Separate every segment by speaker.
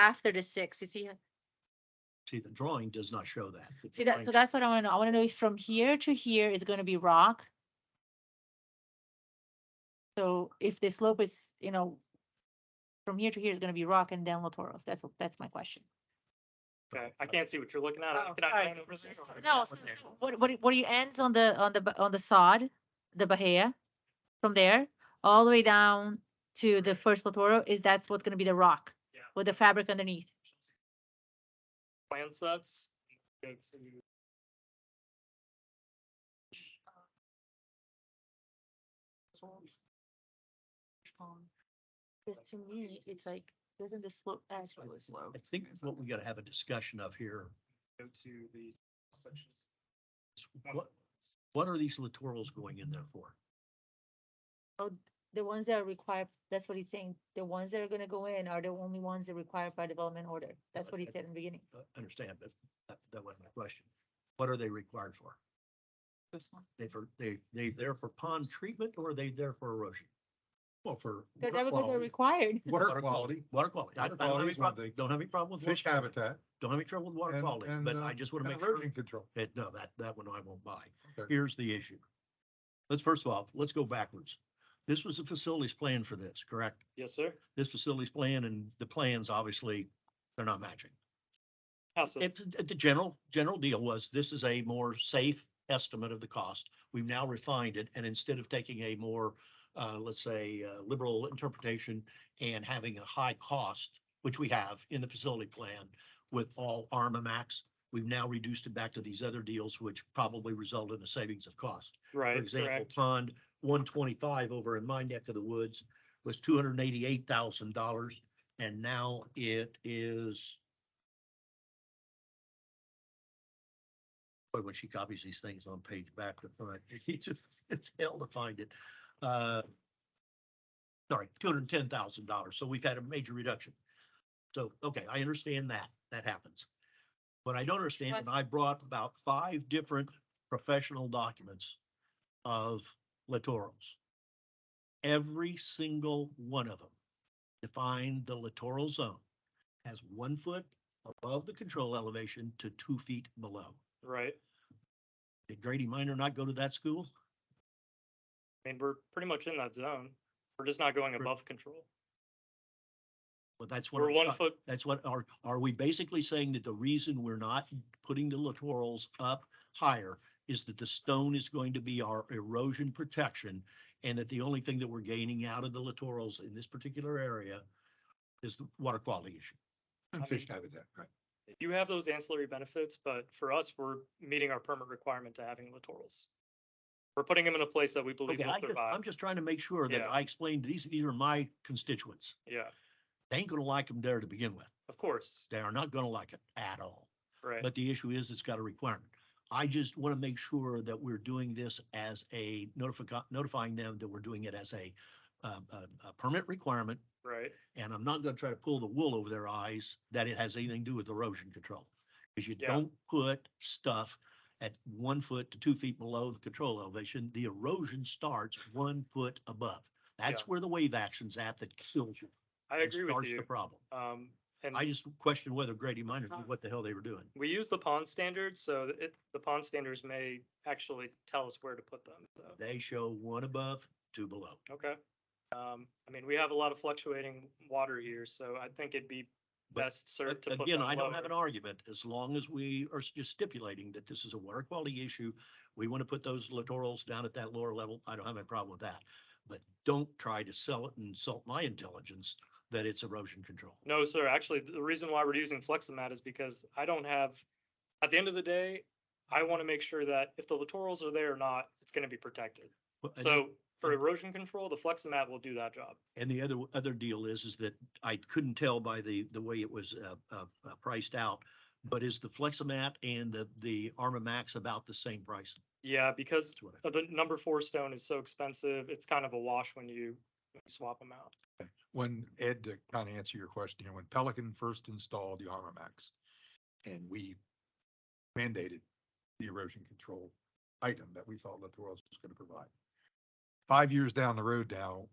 Speaker 1: after the six, you see?
Speaker 2: See, the drawing does not show that. The
Speaker 1: See that,
Speaker 2: drawing
Speaker 1: so that's what I wanna know. I wanna know if from here to here is gonna be rock. So if the slope is, you know, from here to here is gonna be rock and then Latoros. That's, what- that's my question.
Speaker 3: Okay, I can't see what you're looking at.
Speaker 1: Oh,
Speaker 3: Can I
Speaker 1: sorry.
Speaker 3: pan over there? or-
Speaker 1: No, so- so what, what, what do you ends on the, on the, ba- on the sod, the bahia? From there, all the way down to the first Latoro, is that's what's gonna be the rock
Speaker 3: Yeah.
Speaker 1: with the fabric underneath?
Speaker 3: Plan sets. Go to-
Speaker 1: Because to me, it's like, doesn't the slope as
Speaker 2: I I think what we gotta have a discussion of here,
Speaker 3: Go to the sections.
Speaker 2: is what, what are these littorals going in there for?
Speaker 1: The ones that are required, that's what he's saying, the ones that are gonna go in are the only ones that are required by development order. That's what he
Speaker 2: Okay.
Speaker 1: said in the beginning.
Speaker 2: Uh, Understand, but that, that wasn't my question. What are they required for?
Speaker 1: This one.
Speaker 2: They for, they, they there for pond treatment or are they there for erosion?
Speaker 4: Well, for
Speaker 1: They're
Speaker 4: water
Speaker 1: because they're
Speaker 4: quality-
Speaker 1: required.
Speaker 4: water quality,
Speaker 2: Water quality. I
Speaker 4: Water
Speaker 2: don't I don't have
Speaker 4: quality
Speaker 2: any
Speaker 4: is one
Speaker 2: prob-
Speaker 4: thing.
Speaker 2: don't have any problem with.
Speaker 4: fish
Speaker 2: water quality.
Speaker 4: habitat.
Speaker 2: Don't have any trouble with water
Speaker 4: and-
Speaker 2: quality,
Speaker 4: and,
Speaker 2: but
Speaker 4: uh,
Speaker 2: I just want to
Speaker 4: and
Speaker 2: make sure.
Speaker 4: Erosion control.
Speaker 2: Eh, no, that, that one I won't buy.
Speaker 4: Okay.
Speaker 2: Here's the issue. Let's first of all, let's go backwards. This was the facilities plan for this, correct?
Speaker 3: Yes, sir.
Speaker 2: This facilities plan and the plans, obviously, they're not matching.
Speaker 3: How so?
Speaker 2: It's, it- the general, general deal was this is a more safe estimate of the cost. We've now refined it and instead of taking a more, uh, let's say, uh, liberal interpretation and having a high cost, which we have in the facility plan with all Armamax, we've now reduced it back to these other deals, which probably result in a savings of cost. For
Speaker 3: Right,
Speaker 2: example,
Speaker 3: correct.
Speaker 2: pond one twenty-five over in my neck of the woods was two hundred and eighty-eight thousand dollars, and now it is. Boy, when she copies these things on page back to front, it's, just- it's hell to find it. Uh, Sorry, two hundred and ten thousand dollars, so we've had a major reduction. So, okay, I understand that, that happens. But I don't understand, and
Speaker 1: Plus-
Speaker 2: I brought about five different professional documents of littorals. Every single one of them defined the littoral zone as one foot above the control elevation to two feet below.
Speaker 3: Right.
Speaker 2: Did Grady Minor not go to that school?
Speaker 3: I mean, we're pretty much in that zone. We're just not going
Speaker 2: We're-
Speaker 3: above control.
Speaker 2: Well, that's what.
Speaker 3: We're
Speaker 2: I'm
Speaker 3: one
Speaker 2: try-
Speaker 3: foot,
Speaker 2: That's what, are, are we basically saying that the reason we're not putting the littorals up higher is that the stone is going to be our erosion protection? And that the only thing that we're gaining out of the littorals in this particular area is the water quality issue?
Speaker 3: I
Speaker 4: And fish
Speaker 3: mean-
Speaker 4: habitat, right.
Speaker 3: you have those ancillary benefits, but for us, we're meeting our permit requirement to having littorals. We're putting them in a place that we believe
Speaker 2: Okay,
Speaker 3: will
Speaker 2: I just, I'm
Speaker 3: survive.
Speaker 2: just trying to make sure that
Speaker 3: Yeah.
Speaker 2: I explained, these, these are my constituents.
Speaker 3: Yeah,
Speaker 2: They ain't gonna like them there to begin with.
Speaker 3: of course,
Speaker 2: They are not gonna like it at all.
Speaker 3: right.
Speaker 2: But the issue is, it's got a requirement. I just want to make sure that we're doing this as a notifi- notifying them that we're doing it as a, um, a, a permit requirement.
Speaker 3: Right,
Speaker 2: And I'm not gonna try to pull the wool over their eyes that it has anything to do with erosion control. Cause you
Speaker 3: Yeah.
Speaker 2: don't put stuff at one foot to two feet below the control elevation. The erosion starts one foot above. That's
Speaker 3: Yeah.
Speaker 2: where the wave action's at that kills you.
Speaker 3: I
Speaker 2: and
Speaker 3: agree with
Speaker 2: starts The
Speaker 3: you.
Speaker 2: problem.
Speaker 3: Um, and
Speaker 2: I just question whether Grady Minor knew what the hell they were doing.
Speaker 3: we use the pond standards, so it, the pond standards may actually tell us where to put them, so.
Speaker 2: They show one above, two below.
Speaker 3: Okay. Um, I mean, we have a lot of fluctuating water here, so I think it'd be
Speaker 2: But-
Speaker 3: best served to put
Speaker 2: Again,
Speaker 3: them
Speaker 2: I don't have an
Speaker 3: lower.
Speaker 2: argument, as long as we are s- just stipulating that this is a water quality issue. We want to put those littorals down at that lower level, I don't have any problem with that. But don't try to sell it and insult my intelligence that it's erosion control.
Speaker 3: No, sir, actually, the reason why we're using Fleximat is because I don't have, at the end of the day, I want to make sure that if the littorals are there or not, it's going to be protected.
Speaker 2: Well, and-
Speaker 3: So for
Speaker 2: and-
Speaker 3: erosion control, the Fleximat will do that job.
Speaker 2: And the other, other deal is, is that I couldn't tell by the, the way it was uh, uh, uh, priced out. But is the Fleximat and the, the Armamax about the same price?
Speaker 3: Yeah, because
Speaker 2: That's what I-
Speaker 3: uh, the number four stone is so expensive, it's kind of a wash when you when you swap them out.
Speaker 4: When Ed, to kind of answer your question, here, when Pelican first installed the Armamax and we mandated the erosion control item that we thought Littorals was going to provide. Five years down the road now,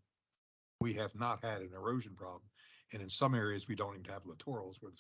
Speaker 4: we have not had an erosion problem And in some areas, we don't even have littorals where the